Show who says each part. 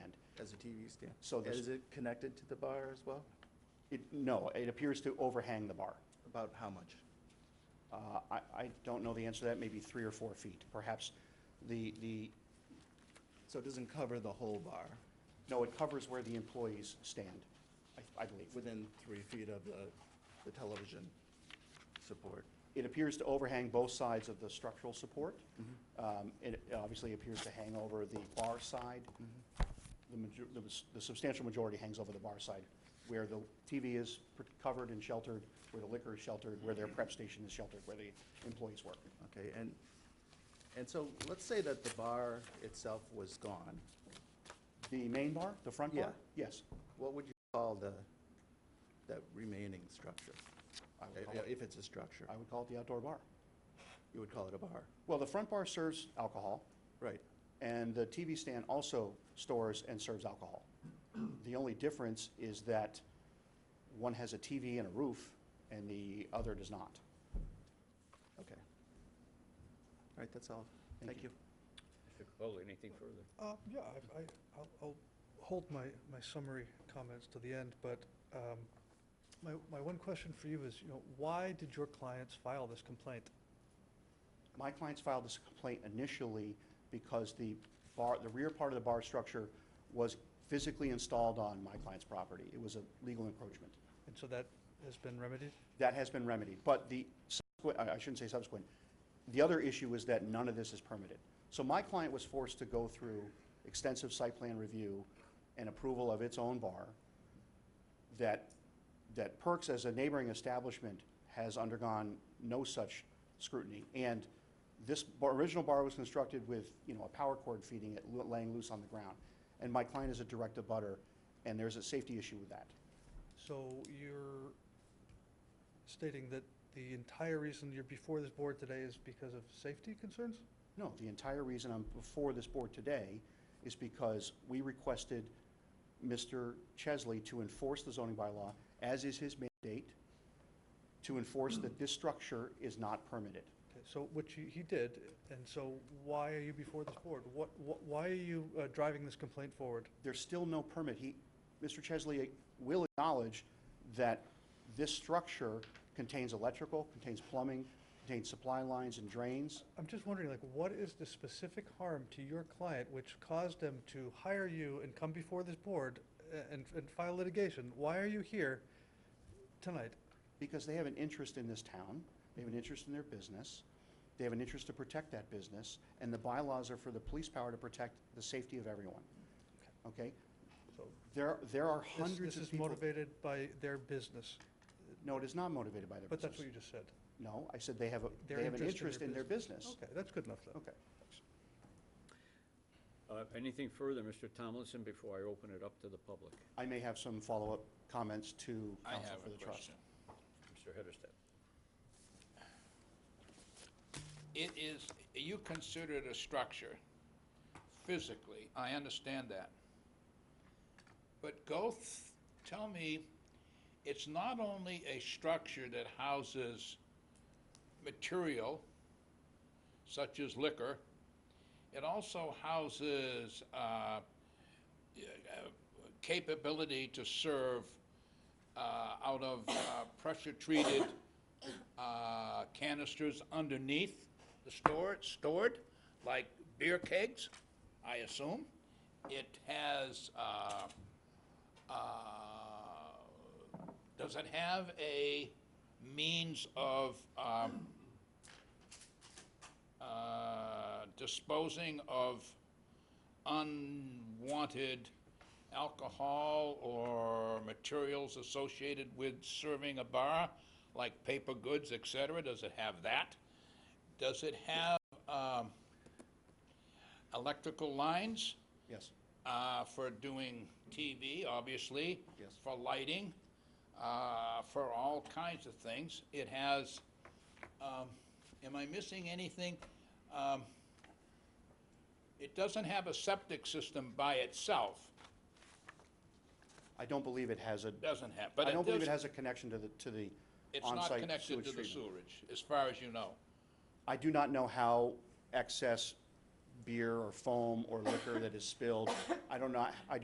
Speaker 1: TV stand.
Speaker 2: So this-
Speaker 1: Is it connected to the bar as well?
Speaker 2: It- No, it appears to overhang the bar.
Speaker 1: About how much?
Speaker 2: Uh, I I don't know the answer to that, maybe three or four feet. Perhaps the, the,
Speaker 1: So it doesn't cover the whole bar
Speaker 2: no, it covers where the employees stand, I- I believe.
Speaker 1: within three feet of the, the television support?
Speaker 2: It appears to overhang both sides of the structural support. Um, It obviously appears to hang over the bar side. The major- the s- The substantial majority hangs over the bar side, where the TV is pr- covered and sheltered, where the liquor is sheltered, where their prep station is sheltered, where the employees work.
Speaker 1: Okay, and, and so let's say that the bar itself was gone.
Speaker 2: The main bar, the front bar?
Speaker 1: Yeah.
Speaker 2: Yes.
Speaker 1: What would you call the, that remaining structure?
Speaker 2: I would
Speaker 1: I-
Speaker 2: call it-
Speaker 1: If it's a structure,
Speaker 2: I would call it the outdoor bar.
Speaker 1: you would call it a bar,
Speaker 2: Well, the front bar serves alcohol,
Speaker 1: right?
Speaker 2: and the TV stand also stores and serves alcohol. The only difference is that one has a TV and a roof, and the other does not.
Speaker 1: Okay. All right, that's all.
Speaker 2: Thank
Speaker 1: Thank you.
Speaker 3: Mr. Capoli, anything further?
Speaker 4: Uh, Yeah, I- I, I'll- I'll hold my, my summary comments to the end, but um, my, my one question for you is, you know, why did your clients file this complaint?
Speaker 2: My clients filed this complaint initially because the bar, the rear part of the bar structure was physically installed on my client's property. It was a legal encroachment.
Speaker 4: And so that has been remedied?
Speaker 2: That has been remedied, but the subsequent, I I shouldn't say subsequent, the other issue is that none of this is permitted. So my client was forced to go through extensive site plan review and approval of its own bar that, that Perks as a neighboring establishment has undergone no such scrutiny. And this bar- original bar was constructed with, you know, a power cord feeding it, lo- laying loose on the ground. And my client is a direct abutter, and there's a safety issue with that.
Speaker 4: So you're stating that the entire reason you're before this board today is because of safety concerns?
Speaker 2: No, the entire reason I'm before this board today is because we requested Mr. Chesley to enforce the zoning bylaw, as is his mandate, to enforce that this structure is not permitted.
Speaker 4: Okay, So, which he, he did, and so why are you before this board? What, what- why are you uh, driving this complaint forward?
Speaker 2: There's still no permit. He, Mr. Chesley will acknowledge that this structure contains electrical, contains plumbing, contains supply lines and drains.
Speaker 4: I'm just wondering, like, what is the specific harm to your client which caused them to hire you and come before this board a- and, and file litigation? Why are you here tonight?
Speaker 2: because they have an interest in this town, they have an interest in their business, they have an interest to protect that business, and the bylaws are for the police power to protect the safety of everyone. Okay?
Speaker 4: So
Speaker 2: There, there are
Speaker 4: this-
Speaker 2: hundreds
Speaker 4: This
Speaker 2: of
Speaker 4: is
Speaker 2: people.
Speaker 4: motivated by their business,
Speaker 2: No, it is not motivated by their
Speaker 4: but
Speaker 2: business.
Speaker 4: that's what you just said.
Speaker 2: No, I said they have, a
Speaker 4: Their
Speaker 2: they have an interest in their business.
Speaker 4: Okay, that's good enough then.
Speaker 2: Okay.
Speaker 3: Uh, Anything further, Mr. Tomlinson, before I open it up to the public?
Speaker 2: I may have some follow-up comments to
Speaker 5: I
Speaker 2: counsel
Speaker 5: have
Speaker 2: for the
Speaker 5: a
Speaker 2: trust.
Speaker 5: question.
Speaker 3: Mr. Hedersted?
Speaker 5: It is, you consider it a structure physically, I understand that. But go, th- tell me, it's not only a structure that houses material such as liquor, it also houses uh, y- uh, capability to serve uh, out of uh, pressure-treated uh, canisters underneath the store, stored, like beer kegs, I assume. It has, uh, uh, does it have a means of um, uh, disposing of unwanted alcohol or materials associated with serving a bar, like paper goods, et cetera? Does it have that? Does it have um, electrical lines
Speaker 2: Yes,
Speaker 5: uh, for doing TV, obviously?
Speaker 2: Yes.
Speaker 5: For lighting, uh, for all kinds of things. It has, um, am I missing anything? Um, It doesn't have a septic system by itself,
Speaker 2: I don't believe it has a,
Speaker 5: doesn't have, but
Speaker 2: I
Speaker 5: it
Speaker 2: don't believe
Speaker 5: does-
Speaker 2: it has a connection to the, to the
Speaker 5: It's not
Speaker 2: on-site
Speaker 5: connected
Speaker 2: sewage
Speaker 5: to the
Speaker 2: treatment.
Speaker 5: sewerage, as far as you know.
Speaker 2: I do not know how excess beer or foam or liquor that is spilled, I don't know, I do